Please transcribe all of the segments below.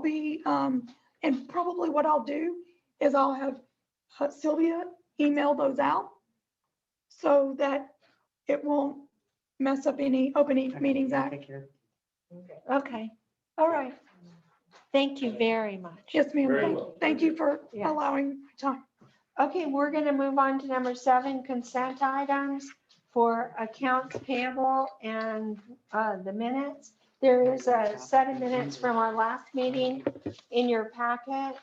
be, um, and probably what I'll do is I'll have uh, Sylvia email those out so that it won't mess up any opening meetings act. Take care. Okay, All right. thank you very much. Yes, ma'am. Very Thank- well. Thank you for Yeah. allowing my time. Okay, we're going to move on to number seven, consent items for accounts payable and uh, the minutes. There is a set of minutes from our last meeting in your packet.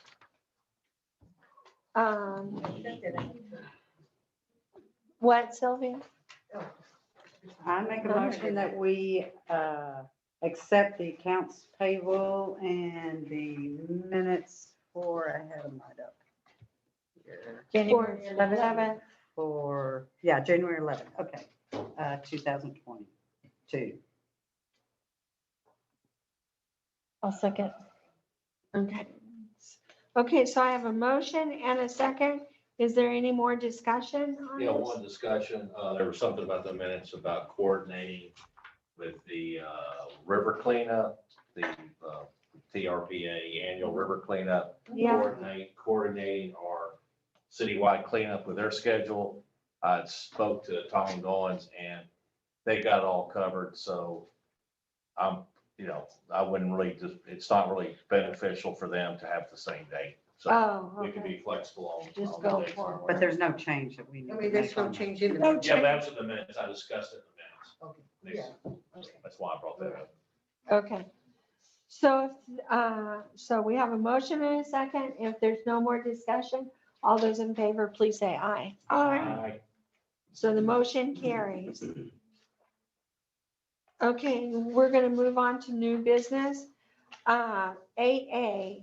Um, What, Sylvia? I make a motion that we uh, accept the accounts payable and the minutes for, I had them right up. here, January 11th. For, yeah, January 11th, okay, uh, 2022. I'll second. Okay. Okay, so I have a motion and a second. Is there any more discussion on Yeah, this? one discussion, uh, there was something about the minutes about coordinating with the, uh, river cleanup, the, uh, TRPA annual river cleanup. Yeah. Coordinate, coordinating our citywide cleanup with their schedule. I spoke to Tommy Goins and they got all covered, so I'm, you know, I wouldn't really just, it's not really beneficial for them to have the same date. So Oh, we can okay. be flexible on. Just on the go dates. forward. But there's no change that we need. I to mean, there's make no on that. change in No the Yeah, change. that's in the minutes. I discussed it Okay, in the minutes. That's why I brought that up. Okay. So, if, uh, so we have a motion and a second. If there's no more discussion, all those in favor, please say aye. I So the motion carries. Okay, we're going to move on to new business. Uh, AA.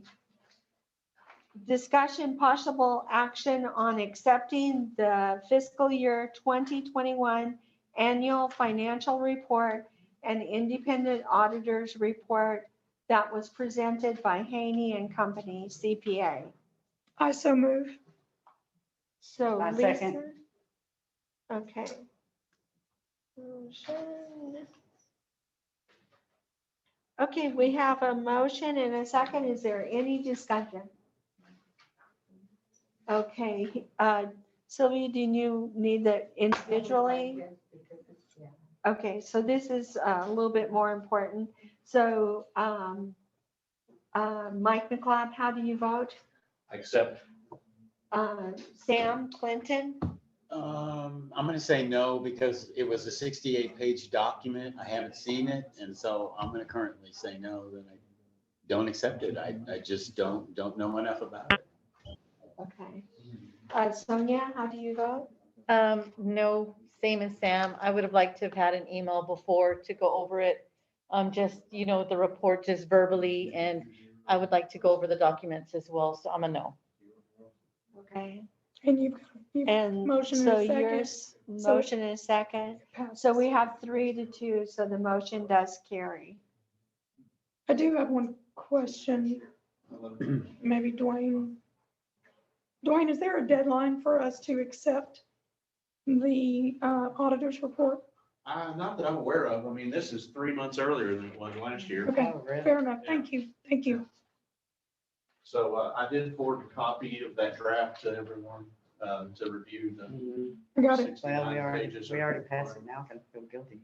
Discussion possible action on accepting the fiscal year 2021 annual financial report and independent auditors report that was presented by Haney and Company CPA. I so move. So I second. Lisa? Okay. Motion. Okay, we have a motion and a second. Is there any discussion? Okay, uh, Sylvia, do you need that individually? Okay, so this is uh, a little bit more important. So um, uh, Mike McLeod, how do you vote? Except, Uh, Sam Clinton? Um, I'm gonna say no because it was a sixty-eight page document. I haven't seen it, and so I'm gonna currently say no, that I don't accept it. I, I just don't, don't know enough about it. Okay. Uh, Sonia, how do you vote? Um, no, same as Sam. I would have liked to have had an email before to go over it. Um, just, you know, the report just verbally and I would like to go over the documents as well. So I'm a no. Okay, And you've, you've and Motion and a so second. yours, So- motion and a second. passed. So we have three to two, so the motion does carry. I do have one question. Maybe Dwayne. Dwayne, is there a deadline for us to accept the uh, auditor's report? Uh, not that I'm aware of. I mean, this is three months earlier than it was last year. Okay, Oh, really? fair enough. Thank you. Thank you. So uh, I did forward a copy of that draft to everyone um, to review the I got it. Well, we sixty-nine already, pages. we already passed it now, I can feel guilty.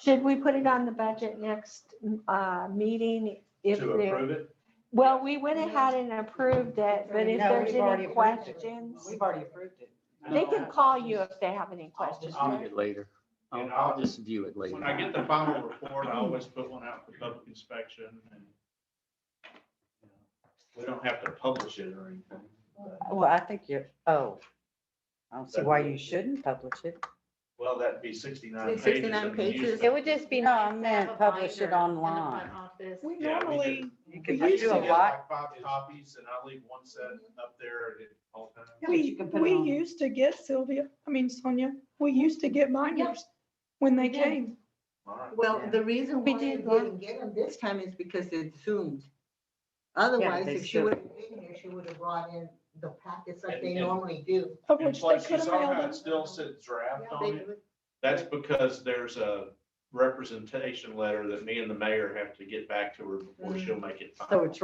Should we put it on the budget next, uh, meeting? if To there- approve it. Well, we went ahead and approved it, but if No, there's we've already any approved it. questions, We've already approved it. they Uh, can call you if they have any questions. I'll- View it later. I'll, And I'll I'll- just view it later. When I get the final report, I always put one out for public inspection and you know, we don't have to publish it or anything. but- Well, I think you're, oh, I don't see why you shouldn't publish it. Well, that'd be sixty-nine pages. 69 and you use pages. It would just be. No, I nice to meant have a publish it binder in the front online. office. We Yeah, we normally, You I can We used used to do to a get lot. like Five copies and I leave one set up there at all times. Yeah, but we, you can put it we on. used to get Sylvia, I mean Sonia, we used to get binders when they We did. came. All right. Well, the reason We why did you that. didn't get them this time is because it's zoomed. Otherwise, they if she should. would have been here, she would have brought in the packets like And- they and- normally do. Of And which they plus, you could have saw mailed how them. it still said draft They on it. do it. That's because there's a representation letter that me and the mayor have to get back to her before she'll make it Mm. So final. it's